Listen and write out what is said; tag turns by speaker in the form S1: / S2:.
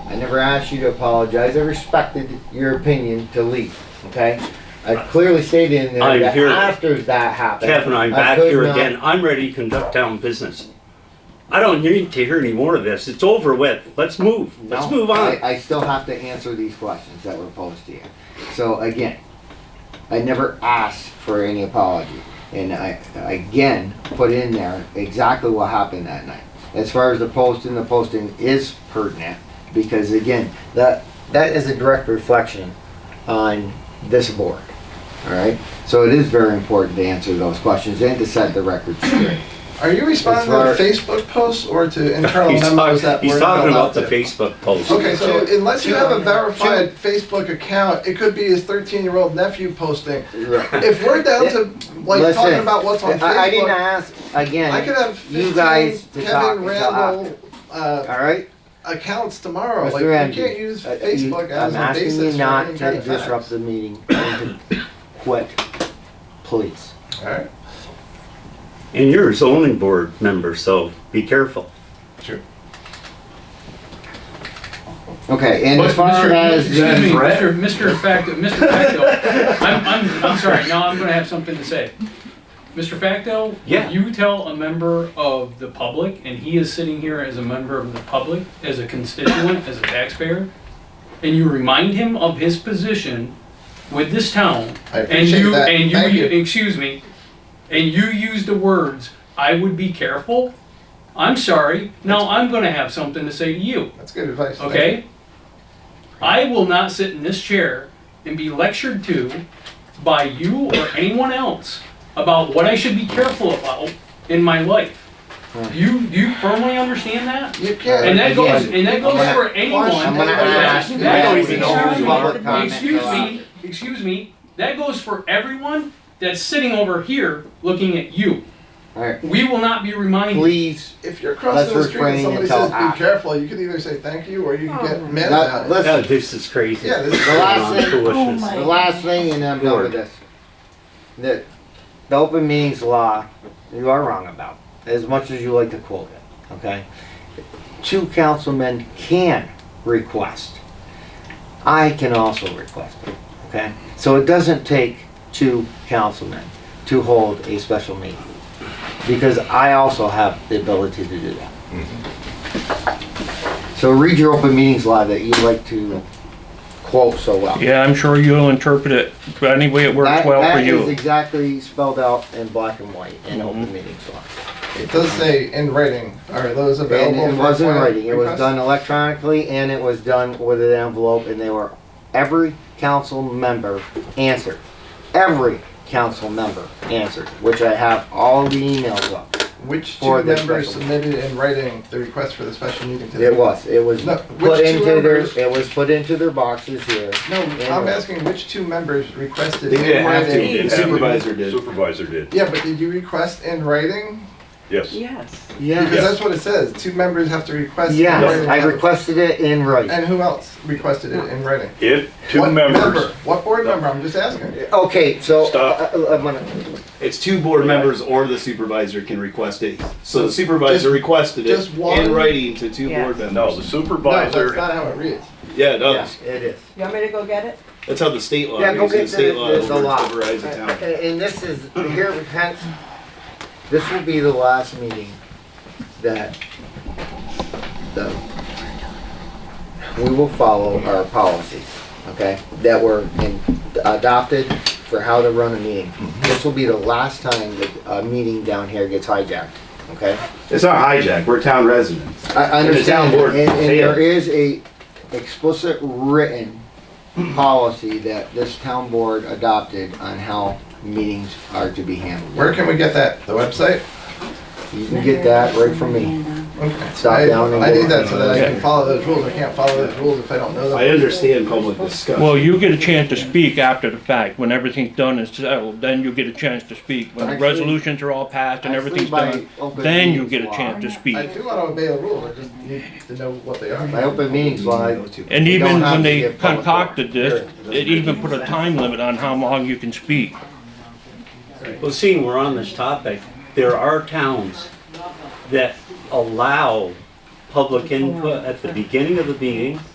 S1: I never asked you to apologize. I respected your opinion to leave, okay? I clearly stated in
S2: I'm
S1: there that
S2: here.
S1: after that happened.
S2: Kevin, I'm
S1: I
S2: back
S1: could
S2: here
S1: not-
S2: again. I'm ready to conduct town business. I don't need to hear any more of this. It's over with. Let's move. Let's
S1: No,
S2: move on.
S1: I, I still have to answer these questions that were posed to you. So again, I never asked for any apology. And I, I again, put in there exactly what happened that night. As far as the posting, the posting is pertinent because again, that, that is a direct reflection on this board. All right? So it is very important to answer those questions and to set the record straight.
S3: Are you responding to
S1: As far-
S3: Facebook posts or to internal
S2: He's
S3: memos
S2: talking,
S3: that
S2: he's
S3: were
S2: talking about
S3: not allowed
S2: the
S3: to?
S2: Facebook post.
S3: Okay, so unless you have a verified Facebook account, it could be his 13-year-old nephew posting. If we're down to like talking
S1: Listen,
S3: about what's on
S1: I, I didn't
S3: Facebook,
S1: ask, again,
S3: I could have
S1: you guys
S3: 15
S1: to talk
S3: Kevin
S1: until after.
S3: Randall uh,
S1: All right,
S3: accounts tomorrow.
S1: Mr.
S3: Like, you
S1: Ramsey,
S3: can't use
S1: uh, you-
S3: Facebook as
S1: I'm
S3: a
S1: asking you
S3: basis for
S1: not
S3: any kind
S1: to
S3: of facts.
S1: disrupt the meeting and to quit, please.
S3: All right,
S2: And you're a zoning board member, so be careful.
S1: Okay, and
S4: But
S1: as far
S4: Mr.
S1: as
S4: Excuse me,
S1: the,
S4: Mr. Mr. Facto, Mr. Facto, I'm, I'm, I'm sorry, now I'm gonna have something to say. Mr. Facto?
S2: Yeah.
S4: You tell a member of the public, and he is sitting here as a member of the public, as a constituent, as a taxpayer, and you remind him of his position with this town,
S3: I
S4: and
S3: appreciate
S4: you,
S3: that.
S4: and
S3: Thank
S4: you, excuse me, and you use the words, I would be careful, I'm sorry, now I'm gonna have something to say to you.
S3: That's good advice. Thank you.
S4: Okay? I will not sit in this chair and be lectured to by you or anyone else about what I should be careful about in my life. Do you, do you firmly understand that?
S3: You can't.
S4: And that goes,
S1: Again,
S4: and that goes
S1: I'm
S4: for
S1: gonna-
S4: anyone.
S1: I'm gonna
S4: That-
S1: ask
S4: that-
S1: that we
S4: excuse
S1: don't
S4: me,
S1: public comment
S4: Excuse
S1: allowed.
S4: me, excuse me, that goes for everyone that's sitting over here looking at you.
S1: Alright.
S4: We will not be reminded.
S1: please,
S3: If you're crossing the
S1: Let's
S3: street and
S1: refrain
S3: somebody
S1: until
S3: says, be
S1: after.
S3: careful, you can either say thank you or you can get mad
S1: Now,
S3: about it.
S2: Oh,
S1: listen,
S2: this is crazy.
S3: Yeah, this is-
S1: The last thing-
S2: Foolishness.
S1: the last thing and I'm done with this. The, the open meetings law, you are wrong about, as much as you like to quote it, okay? Two councilmen can request. I can also request it, okay? So it doesn't take two councilmen to hold a special meeting. Because I also have the ability to do that. So read your open meetings law that you like to quote so well.
S5: Yeah, I'm sure you'll interpret it any way it works
S1: That-
S5: well for
S1: That is
S5: you. Mm-hmm.
S1: exactly spelled out in black and white in open meetings law.
S3: It does say in writing, are those
S1: And
S3: available?
S1: it
S3: for
S1: wasn't
S3: final
S1: writing, it was
S3: request?
S1: done electronically and it was done with an envelope and they were, every council member answered. Every council member answered, which I have all the emails of.
S3: Which
S1: for
S3: two
S1: the
S3: members
S1: special.
S3: submitted in writing the request for the special meeting today?
S1: It was, it was
S3: No,
S1: put
S3: which two
S1: into their,
S3: members?
S1: it was put into their boxes here.
S3: No, I'm
S1: Yeah.
S3: asking which two members requested
S6: They
S3: in
S6: didn't have to.
S3: writing?
S6: The supervisor did.
S7: Supervisor did,
S3: Yeah, but did you request in writing?
S7: yes.
S6: Yes.
S1: Yeah,
S3: Because that's what it says, two members have to request. in
S1: yes,
S3: writing.
S1: I requested it in writing.
S3: And who else requested it in writing?
S7: If two
S3: What
S7: members,
S3: member? What board member? I'm just asking.
S1: Okay, so, uh,
S7: Stop.
S1: I'm gonna,
S6: It's two board members or the supervisor can request it. So the supervisor requested it
S3: just one?
S6: in writing to two board members.
S7: no, the
S3: No, that's
S7: supervisor,
S3: not how it reads.
S6: Yeah, it
S5: Oh.
S1: yeah,
S6: does.
S1: it is.
S6: You want me to go get it? That's how the state law
S1: Yeah, go
S6: is.
S1: get
S6: The state
S1: the-
S6: law
S1: the- the
S6: over-
S1: law.
S6: overrides the town.
S1: And and this is, here, hence, this will be the last meeting that, the, we will follow our policies, okay? That were in- adopted for how to run a meeting. This will be the last time that a meeting down here gets hijacked, okay?
S8: It's not hijack. We're town residents.
S1: I I
S8: And the town
S1: understand,
S8: board
S1: and, and there
S8: failed.
S1: is a explicit written policy that this town board adopted on how meetings are to be handled.
S3: Where can we get that? The website?
S1: You can get that right from me.
S3: Okay.
S1: Stop
S3: I-
S1: down and
S3: I
S1: go
S3: need that
S1: on.
S3: so that I
S5: Yeah.
S3: can follow those rules. I can't follow those rules if I don't know them.
S8: I understand public discussion.
S5: Well, you get a chance to speak after the fact, when everything's done and settled, then you get a chance to speak. When the
S1: Actually-
S5: resolutions are all passed and
S1: actually
S5: everything's
S1: by
S5: done,
S1: open
S5: then you
S1: meetings
S5: get a
S1: law-
S5: chance to
S3: I
S5: speak.
S3: do want to obey the rules, I just need to know what they are.
S1: By open meetings law, I-
S5: And
S1: We don't
S5: even
S1: have to
S5: when they
S1: give public
S5: concocted this, it even put a time limit on how long you can speak.
S2: Well, seeing we're on this topic, there are towns that allow public input at the beginning of the meeting